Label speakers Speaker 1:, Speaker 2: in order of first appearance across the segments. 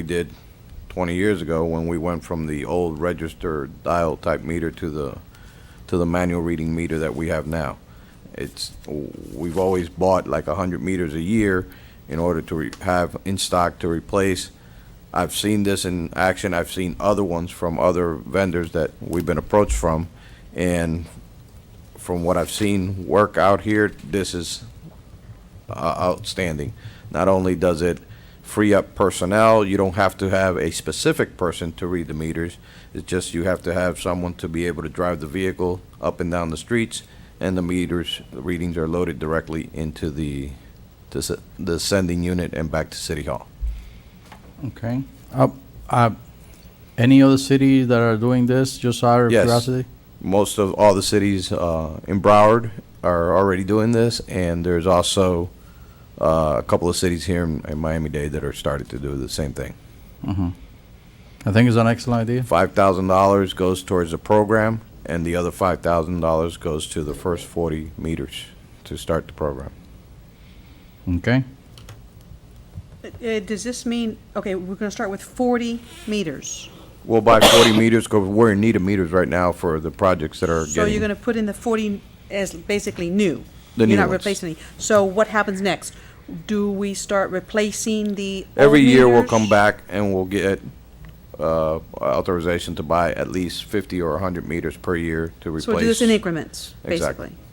Speaker 1: we did 20 years ago when we went from the old register dial type meter to the, to the manual reading meter that we have now. It's, we've always bought like 100 meters a year in order to re- have in stock to replace. I've seen this in action, I've seen other ones from other vendors that we've been approached from, and from what I've seen work out here, this is uh, outstanding. Not only does it free up personnel, you don't have to have a specific person to read the meters. It's just you have to have someone to be able to drive the vehicle up and down the streets, and the meters, the readings are loaded directly into the, to s- the sending unit and back to City Hall.
Speaker 2: Okay. Uh, uh, Any other cities that are doing this, just out of
Speaker 1: Yes.
Speaker 2: curiosity?
Speaker 1: Most of, all the cities uh, in Broward are already doing this, and there's also uh, a couple of cities here in in Miami-Dade that are started to do the same thing.
Speaker 2: I think it's an excellent idea.
Speaker 1: Five thousand dollars goes towards the program, and the other five thousand dollars goes to the first forty meters to start the program.
Speaker 2: Okay.
Speaker 3: Uh, Does this mean, okay, we're going to start with 40 meters?
Speaker 1: We'll buy forty meters, because we're in need of meters right now for the projects that are
Speaker 3: So you're going
Speaker 1: getting.
Speaker 3: to put in the 40 as basically new?
Speaker 1: The new
Speaker 3: You're not
Speaker 1: ones.
Speaker 3: replacing any. So what happens next? Do we start replacing the old
Speaker 1: Every year, we'll
Speaker 3: meters?
Speaker 1: come back and we'll get, uh, authorization to buy at least fifty or hundred meters per year to replace.
Speaker 3: So we'll do this in increments,
Speaker 1: Exactly.
Speaker 3: basically?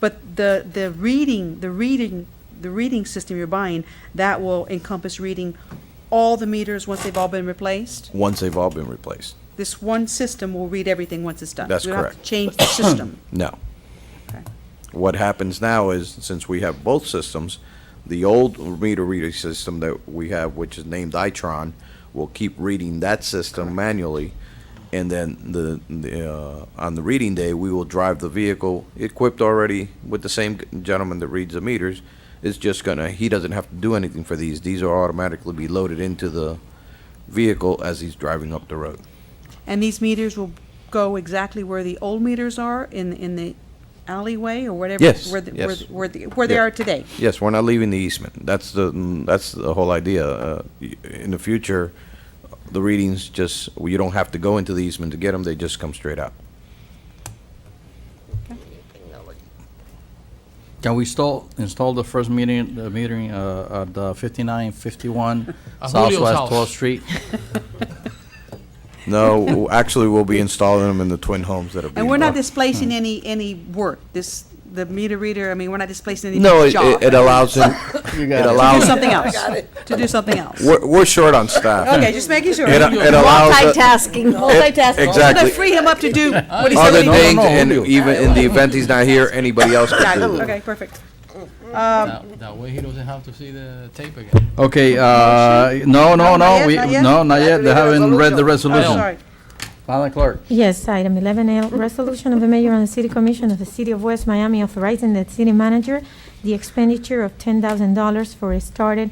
Speaker 3: But the, the reading, the reading, the reading system you're buying, that will encompass reading all the meters once they've all been replaced?
Speaker 1: Once they've all been replaced.
Speaker 3: This one system will read everything once it's done?
Speaker 1: That's
Speaker 3: We don't have
Speaker 1: correct.
Speaker 3: to change the system?
Speaker 1: No.
Speaker 3: Okay.
Speaker 1: What happens now is, since we have both systems, the old meter reader system that we have, which is named Itron, will keep reading that system manually. And then the, the, uh, on the reading day, we will drive the vehicle equipped already with the same gentleman that reads the meters. It's just gonna, he doesn't have to do anything for these. These are automatically be loaded into the vehicle as he's driving up the road.
Speaker 3: And these meters will go exactly where the old meters are in, in the alleyway or whatever?
Speaker 1: Yes,
Speaker 3: where the-
Speaker 1: yes.
Speaker 3: where the- Where, the- where they
Speaker 1: Yeah.
Speaker 3: are today?
Speaker 1: Yes, we're not leaving the easement. That's the, mm, that's the whole idea. Uh, y- In the future, the readings just, you don't have to go into the easement to get them, they just come straight out.
Speaker 2: Can we install, install the first metering, the metering uh, at the 5951
Speaker 4: At Julio's
Speaker 2: Southwest
Speaker 4: house.
Speaker 2: 12th Street?
Speaker 1: No, w- actually, we'll be installing them in the twin homes that are Hmm. being.
Speaker 3: And we're not
Speaker 1: built.
Speaker 3: displacing any, any work, this, the meter reader, I mean, we're not displacing any
Speaker 1: No,
Speaker 3: job.
Speaker 1: it- it it allows them, it
Speaker 3: To do
Speaker 1: allows,
Speaker 3: something else, to do something else.
Speaker 1: we're, we're short on staff.
Speaker 3: Okay, just making sure.
Speaker 1: It
Speaker 3: We're
Speaker 1: it allows, uh,
Speaker 5: Multitasking, multitasking.
Speaker 3: gonna
Speaker 1: exactly,
Speaker 3: free him up to do what he's
Speaker 1: other
Speaker 3: already doing.
Speaker 1: things, and even in the event he's not here, anybody else can do it.
Speaker 3: Okay, perfect.
Speaker 4: That, that way he doesn't have to see the tape again.
Speaker 2: Okay, uh, no, no,
Speaker 3: not
Speaker 2: no,
Speaker 3: yet,
Speaker 2: we,
Speaker 3: not yet?
Speaker 2: no, not yet, they haven't read the
Speaker 3: I'm
Speaker 2: resolution.
Speaker 3: Oh, sorry.
Speaker 2: Madam Clerk.
Speaker 6: Yes, item 11L, resolution of the mayor and the city commission of the city of West Miami authorizing the city manager the expenditure of $10,000 for a started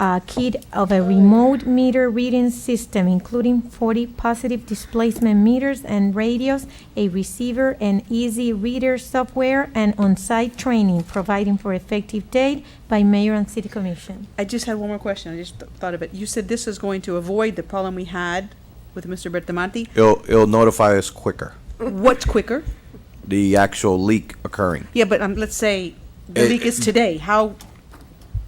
Speaker 6: uh, kit of a remote meter reading system, including 40 positive displacement meters and radios, a receiver and easy reader software, and on-site training, providing for effective date by mayor and city commission.
Speaker 3: I just had one more question, I just th- thought of it. You said this is going to avoid the problem we had with Mr. Bertamanti.
Speaker 1: It'll, it'll notify us quicker,
Speaker 3: What's quicker?
Speaker 1: the actual leak occurring.
Speaker 3: Yeah, but um, let's say the
Speaker 1: It-
Speaker 3: leak is today, how,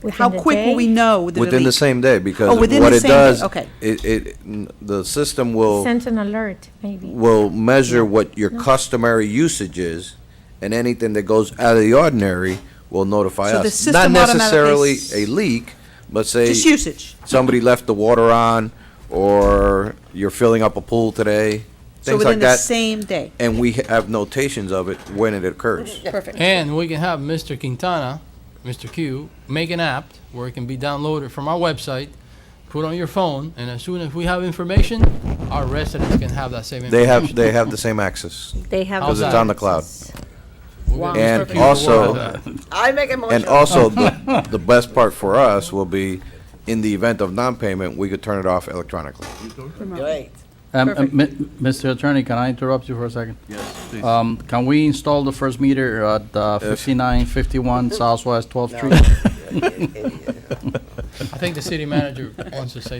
Speaker 6: Within
Speaker 3: how
Speaker 6: the
Speaker 3: quick will
Speaker 6: day.
Speaker 3: we know that the
Speaker 1: Within the
Speaker 3: leak?
Speaker 1: same day, because
Speaker 3: Oh, within
Speaker 1: what
Speaker 3: the
Speaker 1: it
Speaker 3: same day,
Speaker 1: does,
Speaker 3: okay.
Speaker 1: it, it, n- the system will,
Speaker 6: Sent an alert, maybe.
Speaker 1: will measure what your customary usage is, and anything that goes out of the ordinary will notify
Speaker 3: So the
Speaker 1: us. Not
Speaker 3: system automatically
Speaker 1: necessarily
Speaker 3: s-
Speaker 1: a leak, but say,
Speaker 3: Just usage.
Speaker 1: somebody left the water on, or you're filling up a pool today,
Speaker 3: So
Speaker 1: things
Speaker 3: within
Speaker 1: like
Speaker 3: the
Speaker 1: that.
Speaker 3: same day.
Speaker 1: And we ha- have notations of it when it occurs.
Speaker 3: Perfect.
Speaker 4: And we can have Mr. Quintana, Mr. Q, make an app where it can be downloaded from our website, put on your phone, and as soon as we have information, our residents can have that same
Speaker 1: They
Speaker 4: information.
Speaker 1: have, they have the same access,
Speaker 5: They have.
Speaker 1: because it's on the cloud.
Speaker 4: We're gonna
Speaker 1: And
Speaker 4: start to use the
Speaker 1: also-
Speaker 4: word.
Speaker 7: I make a
Speaker 1: And
Speaker 7: motion.
Speaker 1: also, the, the best part for us will be, in the event of non-payment, we could turn it off electronically.
Speaker 7: Great.
Speaker 2: Um, um,
Speaker 3: Perfect.
Speaker 2: mi- Mr. Attorney, can I interrupt you for a second? Yes, please. Um, can we install the first meter at uh, 5951 Southwest 12th Street?
Speaker 4: I think the city manager wants to say